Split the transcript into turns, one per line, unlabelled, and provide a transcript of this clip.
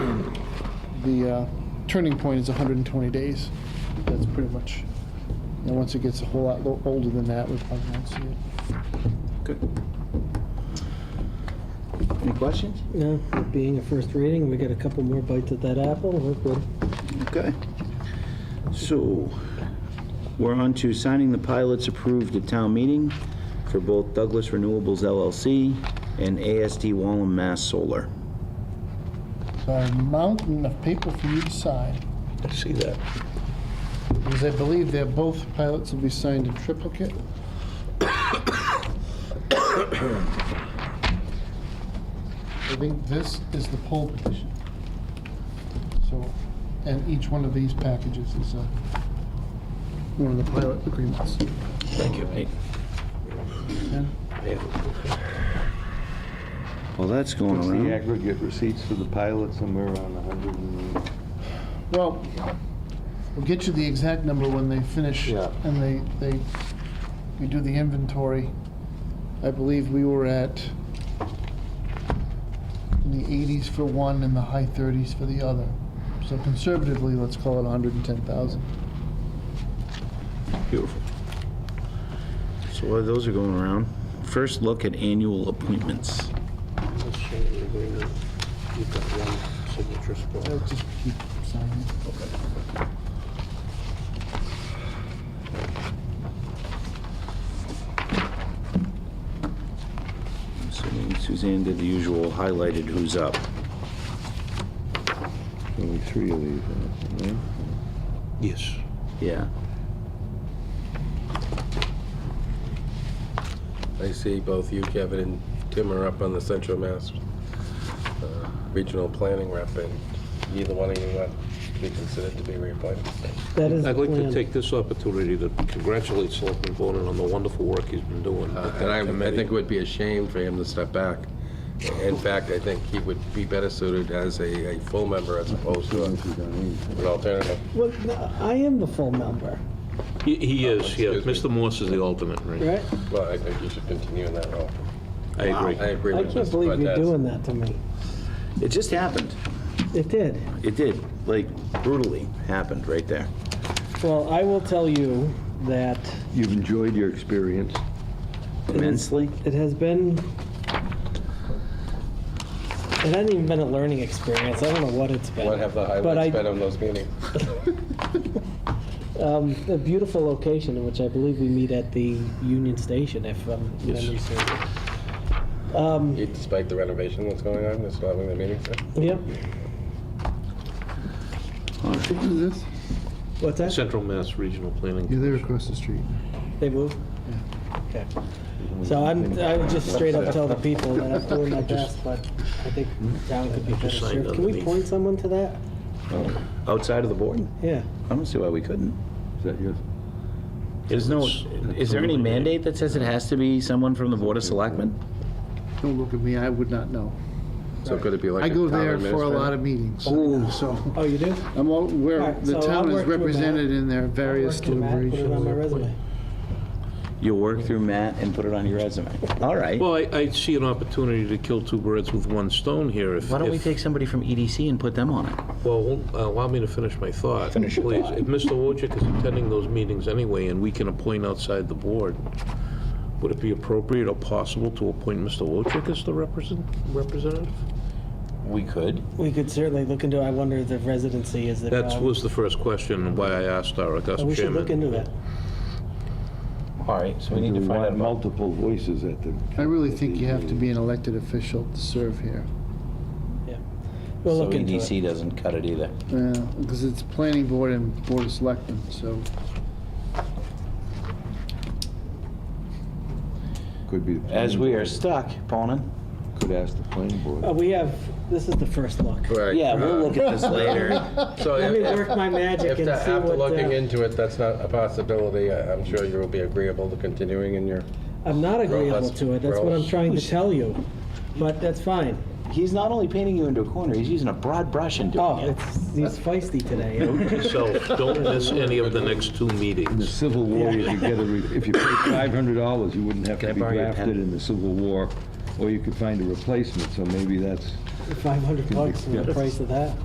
the uh, turning point is 120 days. That's pretty much, and once it gets a whole lot lo- older than that, we probably won't see it.
Good. Any questions?
Yeah, it being a first reading, we get a couple more bites at that apple, we're good.
Okay. So, we're on to signing the pilots approved at town meeting for both Douglas Renewables LLC and ASD Wallam Mass Solar.
So a mountain of paper for you to sign,
I see that.
because I believe they're both pilots will be signed in triplicate. I think this is the poll petition. So, and each one of these packages is uh, one of the pilot agreements.
Thank you.
Right.
Yeah.
Well, that's going
What's the
around.
aggregate receipts for the pilot, somewhere around 100 and...
Well, we'll get you the exact number when they finish
Yeah.
and they, they, we do the inventory. I believe we were at in the eighties for one and the high thirties for the other. So conservatively, let's call it hundred and ten thousand.
Beautiful. So while those are going around, first look at annual appointments.
You've got one signature
I'll
spot.
just keep signing.
So Suzanne did the usual, highlighted who's up.
Only three of these, I think, right?
Yes.
Yeah.
I see both you, Kevin, and Tim are up on the Central Mass uh, Regional Planning Rep, and neither one of you want to be considered to be reappointed.
That is the
I'd like to
plan.
take this opportunity to congratulate Selectman Bonan on the wonderful work he's been doing.
Uh,
with that
And I, I
committee.
think it would be a shame for him to step back. In fact, I think he would be better suited as a, a full member as opposed to a- an alternative.
Well, I am the full member,
He- He is, yeah.
Uh, Excuse
Mr. Morse is the alternate, right?
right?
Well, I think you should continue in that role.
I
I
agree.
agree
I
with
can't
Mr.
believe you're
Cortez.
doing that to me.
It just happened.
It did.
It did, like brutally happened right there.
Well, I will tell you that
You've enjoyed your experience.
Immensely?
it has been, it hasn't even been a learning experience. I don't know what it's been.
What have the
But I-
highlights been on those meetings?
Um, a beautiful location in which I believe we meet at the Union Station, if um, memory serves. Um,
Despite the renovation that's going on, they're still having the meetings there?
yep.
What is this?
What's that?
Central Mass Regional Planning.
Yeah, they're across the street.
They moved? Okay. So I'm, I would just straight up tell the people that I'm doing my best, but I think the town could be better
Just signed
served. Can we
underneath.
point someone to that?
Outside of the board?
Yeah.
I don't see why we couldn't.
Is that yours?
There's no, is there any mandate that says it has to be someone from the Board of Selectmen?
Don't look at me, I would not know.
So could it be like
I go there for a lot of meetings, so
Oh, you do?
I'm all, where,
Alright,
the
so I'll
town is
work with that.
represented in their various
Work in that, Put it on my
deliberations.
resume.
You'll work through Matt and put it on your resume. All right.
Well, I, I see an opportunity to kill two birds with one stone here if.
Why don't we
if-
take somebody from EDC and put them on it?
Well, uh, allow me to finish my thought. Finish your Please, if Mr. Wojcik is attending those meetings anyway, and we can appoint outside the board, would it be appropriate or possible to appoint Mr. Wojcik as the represent- representative?
We could.
We could certainly look into, I wonder if the residency is the.
That was the first question, why I asked our august
Um, We should
chairman.
look into that.
All right, so we
Do
need to
we
find
want
out about.
multiple voices at the...
I really think you have to be an elected official to serve here.
We'll look into
So
it.
EDC doesn't cut it either.
Because Uh, it's planning board and board of selectmen, so
Could be... the planning
As we are
board.
stuck, Bonin.
Could ask the planning
Uh,
board.
we have, this is the first look.
Right. Um,
Yeah, we'll look at this later.
So
Let me
if-
work my magic
if,
and
the-
see
after
what,
looking
uh,
into it, that's not a possibility, I- I'm sure you will be agreeable to continuing in your,
I'm not agreeable
Rollins-
to it. That's what I'm
Rollins.
trying to tell you. But that's fine.
He's not only painting you into a corner, he's using a broad brush and doing
Oh,
it.
it's, he's feisty today.
So don't miss any of the next two
The
meetings.
Civil War, you could get a, re- if you paid $500, you wouldn't have
Can I
to be
borrow your
drafted
pen?
in the Civil War, or you could find a replacement, so maybe that's...
500 bucks for the price of that.